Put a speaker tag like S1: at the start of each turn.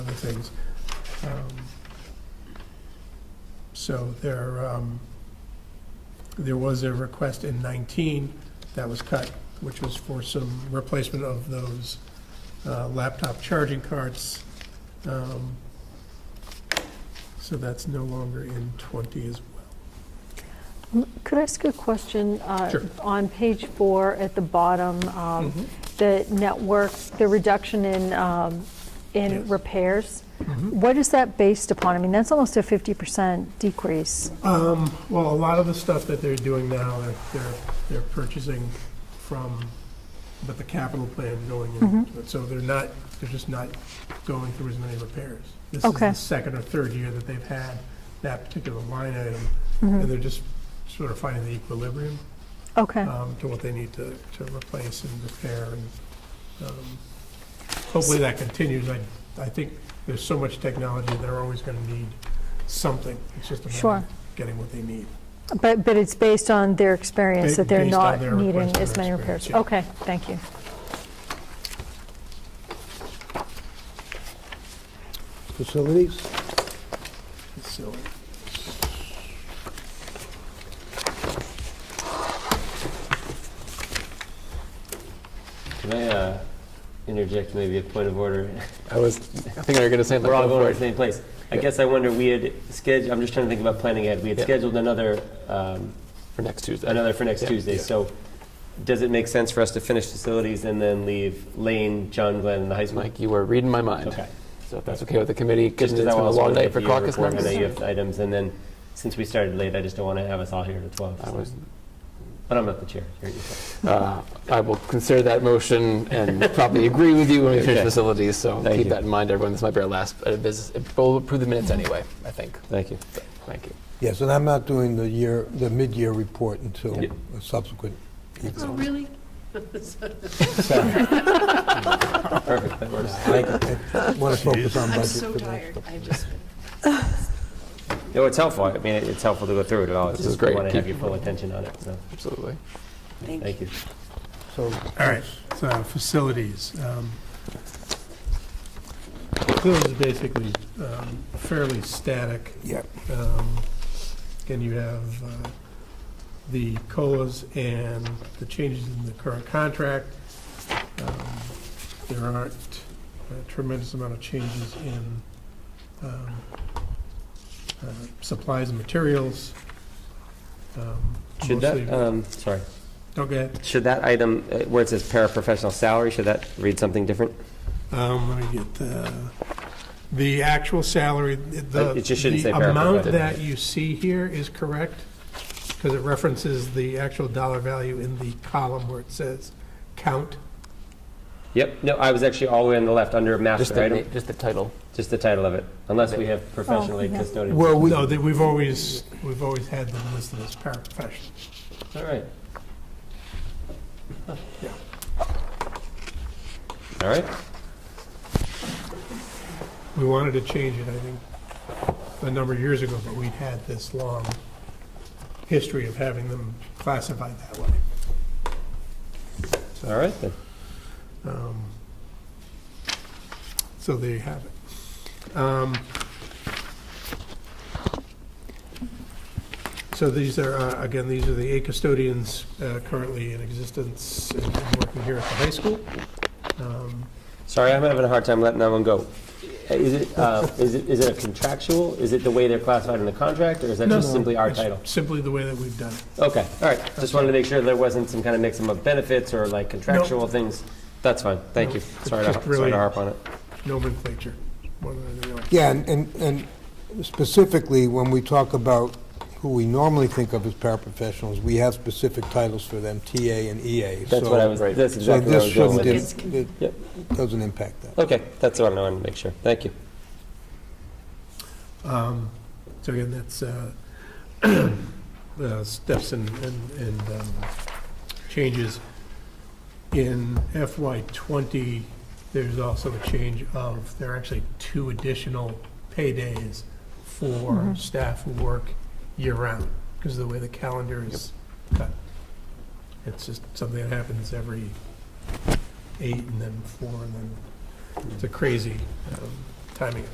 S1: things. Um, So there, um, there was a request in 19 that was cut, which was for some replacement of those uh, laptop charging carts. Um, So that's no longer in 20 as well.
S2: Could I ask you a question? Uh,
S1: Sure. Hmm.
S2: On page four, at the bottom, um, the network, the reduction in, um, in
S1: Yes.
S2: repairs, what is that based upon? I mean, that's almost a 50% decrease.
S1: Um, well, a lot of the stuff that they're doing now, they're, they're, they're purchasing from, but the capital plan going
S2: Mm-hmm.
S1: into it. So they're not, they're just not going through as many repairs. This is
S2: Okay.
S1: the second or third year that they've had that particular line item,
S2: Mm.
S1: and they're just sort of finding the equilibrium,
S2: Mm-hmm. Okay,
S1: um, to what they need to, to replace and repair and, um, hopefully that continues. I, I think there's so much technology, they're always gonna need something. It's just a matter
S2: Sure.
S1: of getting what they need.
S2: but, but it's based on their experience
S1: Ba-
S2: that they're
S1: based on
S2: not
S1: their
S2: needing
S1: request and
S2: as many
S1: their
S2: repairs?
S1: experience,
S2: Okay, thank you.
S3: Facilities?
S1: So,
S4: Can I uh, interject maybe a point of order?
S5: I was thinking you were going to say that.
S4: We're all
S5: Go
S4: going
S5: for
S4: to the
S5: it.
S4: same place. I
S5: Yeah.
S4: guess I wonder, we had scheduled, I'm just trying to think about planning ahead. We had
S5: Yeah.
S4: scheduled another, um,
S5: for next Tuesday.
S4: another for next
S5: Yeah.
S4: Tuesday.
S5: Yeah.
S4: So does it make sense for us to finish facilities and then leave Lane, John Glenn, and the high school?
S5: Mike, you were reading my mind.
S4: Okay.
S5: So if that's okay with the committee,
S4: Just
S5: given
S4: as
S5: it's
S4: I
S5: been a
S4: also
S5: long
S4: wanted to
S5: night for
S4: get your
S5: caucus
S4: report, I know you
S5: members.
S4: have items, and then since we started late, I just don't want to have us all here at 12.
S5: I
S4: so-
S5: was,
S4: But I'm not the chair. You're- you're fine.
S5: uh, I will consider that motion and probably agree with you when we finish
S4: Okay.
S5: facilities. So
S4: Thank
S5: keep
S4: you.
S5: that in mind, everyone. This might be our last uh, business. We'll approve the minutes anyway, I think.
S4: Thank you.
S5: Thank you.
S3: Yes, and I'm not doing the year, the mid-year report until
S5: Yeah.
S3: a subsequent.
S6: Oh, really?
S4: Perfect. That works.
S3: I want to focus on budget.
S6: I'm so
S3: for the next
S6: tired. I just,
S4: No, it's helpful. I mean, it's helpful to go through it at all. It's
S5: This is
S4: just
S5: great.
S4: want to
S5: Keep-
S4: have your full attention on it, so
S5: Absolutely.
S6: thank you.
S4: thank you.
S3: So,
S1: All right, so facilities. um, Facilities is basically um, fairly static.
S3: yeah,
S1: Um, Again, you have uh, the COLAs and the changes in the current contract. Um, There aren't a tremendous amount of changes in um, uh, supplies and materials. Um,
S4: Should that,
S1: mostly-
S4: um, sorry,
S1: Oh, go ahead.
S4: should that item, uh, where it says paraprofessional salary, should that read something different?
S1: Um, let me get the, the actual salary, the.
S4: Uh, it just shouldn't say
S1: The amount
S4: paraprofessional.
S1: that you see here is correct, because it references the actual dollar value in the column where it says count.
S4: Yep, no, I was actually all the way on the Oh, left, under
S5: Just
S4: master
S5: the,
S4: item,
S5: na- just the title.
S4: just the title of it, unless we have professional aid
S2: yeah.
S4: custodian.
S3: well, we,
S1: No, that we've always, we've always had them listed as paraprofessional.
S4: All right.
S1: Yeah.
S4: All right,
S1: We wanted to change it, I think, a number of years ago, but we'd had this long history of having them classified that way.
S4: all right then.
S1: Um, So there you have it. Um, So these are, uh, again, these are the eight custodians uh, currently in existence and working here at the high school. Um,
S4: Sorry, I'm having a hard time letting that one go. Is it, uh, is it, is it a contractual, is it the way they're classified in the contract, or is that
S1: No,
S4: just
S1: no,
S4: simply our
S1: it's
S4: title?
S1: Simply the way that we've done it.
S4: Okay, all right, just wanted to make sure there wasn't some kind of mix of benefits or like contractual things. That's fine, thank
S1: No,
S4: you.
S1: it's
S4: Sorry to
S1: just
S4: sorry
S1: really-
S4: to harp on it.
S1: Nomenclature, more than anything else.
S3: yeah, and- and, and specifically, when we talk about who we normally think of as paraprofessionals, we have specific titles for them, TA and EA.
S4: That's
S3: So-
S4: what I was,
S5: right.
S4: that's
S3: So
S4: exactly where I
S3: this
S4: was going
S3: shouldn't,
S4: with it.
S6: with
S3: it
S4: Yep.
S3: doesn't impact that.
S4: Okay, that's what I wanted to make sure. Thank you.
S1: Um, So again, that's uh, uh, steps and, and- and um, changes. In FY '20, there's also a change of, there are actually two additional paydays for staff who work year-round, because of the way the calendar is cut. It's just something that happens every eight and then four, and then it's a crazy um, timing